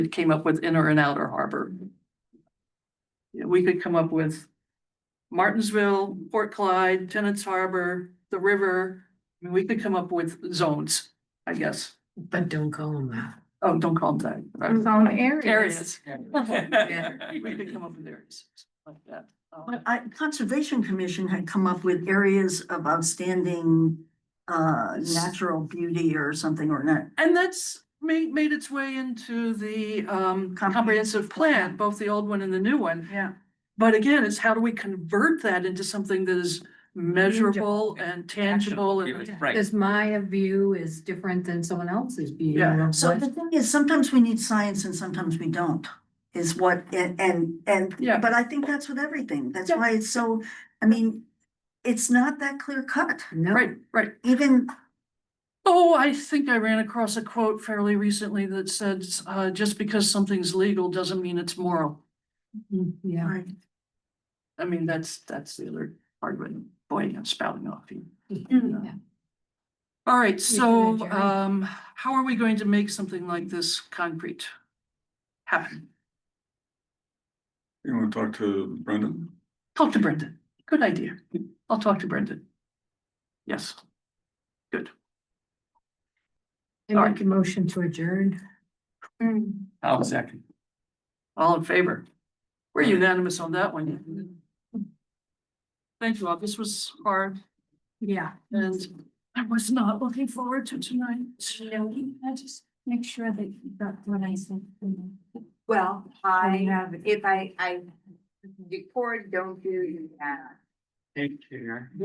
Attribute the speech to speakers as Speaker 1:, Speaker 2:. Speaker 1: we came up with inner and outer harbor. Yeah, We could come up with Martinsville, Port Clyde, Tennant's Harbor, the river. I mean, we could come up with zones, I guess.
Speaker 2: But don't call them that.
Speaker 1: Oh, don't call them that.
Speaker 3: Zone areas.
Speaker 1: Areas.
Speaker 3: Yeah.
Speaker 1: We could come up with areas like that. Um,
Speaker 4: But I, Conservation Commission had come up with areas of outstanding uh, natural beauty or something or not.
Speaker 1: And that's made, made its way into the, um, comprehensive plan, both the old one and the new one.
Speaker 4: Yeah.
Speaker 1: But again, it's how do we convert that into something that is measurable and tangible and
Speaker 5: Right,
Speaker 2: Cause my view is different than someone else's view.
Speaker 1: Yeah.
Speaker 2: of
Speaker 4: So
Speaker 2: what-
Speaker 4: the thing is, sometimes we need science and sometimes we don't, is what, and, and, and,
Speaker 1: Yeah.
Speaker 4: but I think that's with everything. That's
Speaker 1: Yeah.
Speaker 4: why it's so, I mean, it's not that clear cut,
Speaker 2: No.
Speaker 1: Right, right.
Speaker 4: even,
Speaker 1: Oh, I think I ran across a quote fairly recently that said, uh, just because something's legal doesn't mean it's moral.
Speaker 2: Mm, Yeah.
Speaker 4: right,
Speaker 1: I mean, that's, that's the other part of it. Boy, I'm spouting off here.
Speaker 2: Yeah.
Speaker 1: All right,
Speaker 2: can
Speaker 1: so,
Speaker 2: adjourn.
Speaker 1: um, how are we going to make something like this concrete happen?
Speaker 6: You want to talk to Brendan?
Speaker 1: Talk to Brendan. Good idea. I'll talk to Brendan. Yes.
Speaker 2: I make a motion to adjourn.
Speaker 5: I'll second.
Speaker 1: All in favor? We're unanimous on that one. Thank you all. This was hard
Speaker 2: Yeah.
Speaker 1: and I was not looking forward to tonight.
Speaker 3: I just make sure that you got what I said. Well, I, if I, I record, don't do that.
Speaker 5: Thank you.